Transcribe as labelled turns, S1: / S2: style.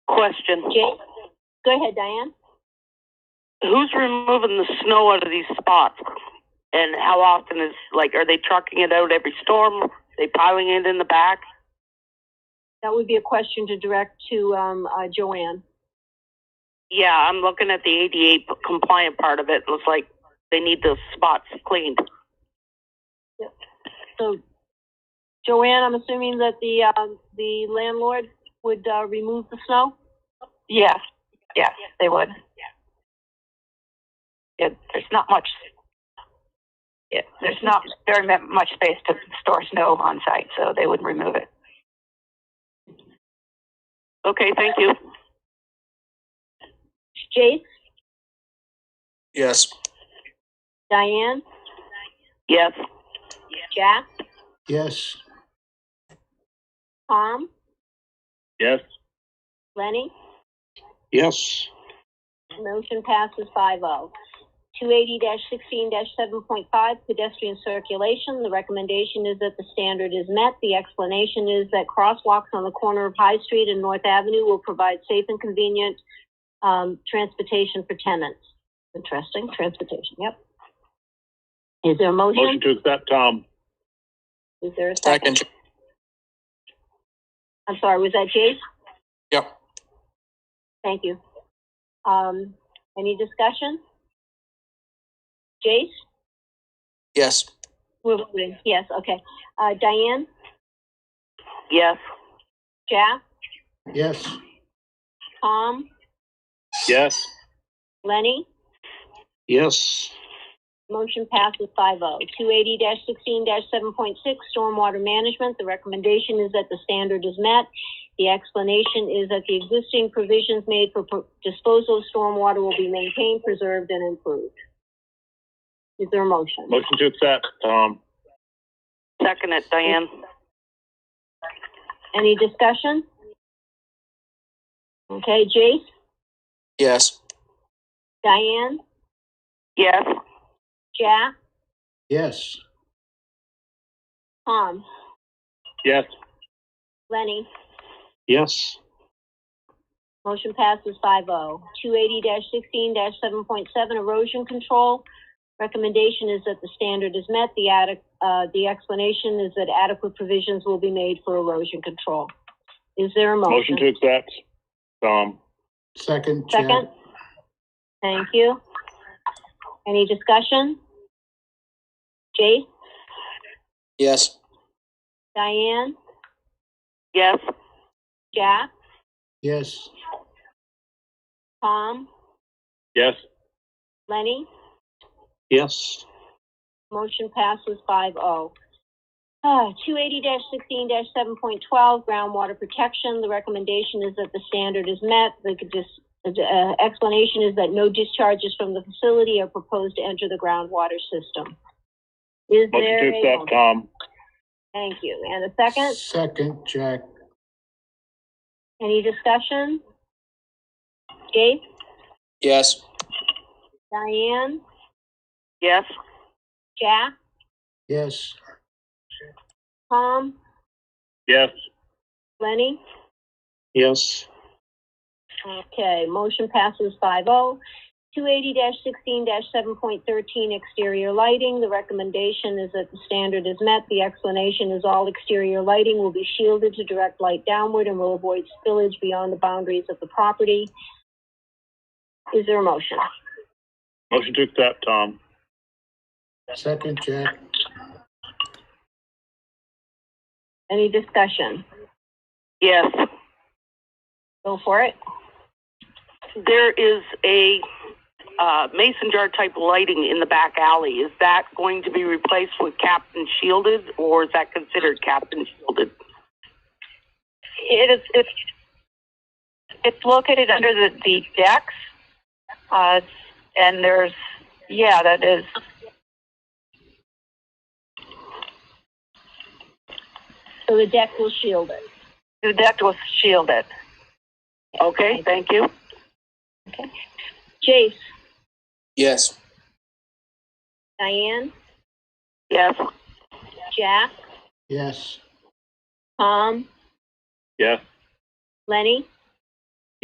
S1: question.
S2: Jake, go ahead, Diane.
S1: Who's removing the snow out of these spots? And how often is, like, are they trucking it out every storm? Are they piling it in the back?
S2: That would be a question to direct to, um, uh, Joanne.
S1: Yeah, I'm looking at the ADA p- compliant part of it. Looks like they need those spots cleaned.
S2: So, Joanne, I'm assuming that the, um, the landlord would, uh, remove the snow?
S3: Yes, yes, they would. Yeah, there's not much. Yeah, there's not very mu- much space to store snow on site, so they would remove it.
S1: Okay, thank you.
S2: Jake,
S4: Yes.
S2: Diane,
S1: Yes.
S2: Jack,
S4: Yes.
S2: Tom,
S4: Yes.
S2: Lenny?
S4: Yes.
S2: Motion passes five oh. Two eighty sixteen seven point five pedestrian circulation. The recommendation is that the standard is met. The explanation is that crosswalks on the corner of High Street and North Avenue will provide safe and convenient, um, transportation for tenants. Interesting, transportation, yep. Is there a
S5: Motion
S2: motion?
S5: to accept, Tom.
S2: Is there a second?
S4: Second,
S2: I'm sorry, was that Jase?
S4: Yep.
S2: Thank you. Um, any discussion? Jase?
S4: yes.
S2: We're voting, yes, okay. Uh, Diane,
S1: Yes.
S2: Jack,
S4: Yes.
S2: Tom,
S5: Yes.
S2: Lenny,
S4: Yes.
S2: motion passes five oh. Two eighty sixteen seven point six, stormwater management, the recommendation is that the standard is met. The explanation is that the existing provisions made for pro- disposal of stormwater will be maintained, preserved, and improved. Is there a motion?
S5: Motion to accept, Tom.
S1: Second it, Diane.
S2: Any discussion? Okay, Jace,
S4: Yes.
S2: Diane,
S1: Yes.
S2: Jack,
S4: Yes.
S2: Tom,
S5: Yes.
S2: Lenny,
S4: Yes.
S2: Motion passes 5-0. Two eighty sixteen seven point seven erosion control. Recommendation is that the standard is met. The adequ- uh, the explanation is that adequate provisions will be made for erosion control. Is there a
S5: Motion
S2: motion?
S5: to accept, Tom.
S4: Second,
S2: Second? Thank you. Any discussion? Jase,
S4: Yes.
S2: Diane,
S1: Yes.
S2: Jack,
S4: Yes.
S2: Tom,
S5: Yes.
S2: Lenny?
S4: Yes.
S2: Motion passes five oh. Uh, two eighty sixteen seven point twelve, groundwater protection. The recommendation is that the standard is met. The dis- uh, explanation is that no discharges from the facility are proposed to enter the groundwater system. Is
S5: Motion to
S2: there a?
S5: accept, Tom.
S2: Thank you. And a second?
S4: Second, Jack.
S2: Any discussion? Jake,
S4: Yes.
S2: Diane,
S1: Yes.
S2: Jack,
S4: Yes.
S2: Tom,
S5: Yes.
S2: Lenny?
S4: Yes.
S2: Okay, motion passes five oh. Two eighty sixteen seven point thirteen exterior lighting, the recommendation is that the standard is met. The explanation is all exterior lighting will be shielded to direct light downward and will avoid spillage beyond the boundaries of the property. Is there a motion?
S5: Motion to accept, Tom.
S4: Second, Jack.
S2: Any discussion?
S1: Yes.
S2: Go for it.
S1: There is a uh, mason jar type lighting in the back alley. Is that going to be replaced with Captain Shielded or is that considered Captain Shielded?
S3: It is, it's, it's located under the, the decks. Uh, and there's, yeah, that is,
S2: So the deck will shield it.
S3: the deck was shielded.
S1: Okay, thank you.
S2: Jace,
S4: Yes.
S2: Diane,
S1: Yes.
S2: Jack,
S4: Yes.
S2: Tom,
S5: Yes.
S2: Lenny?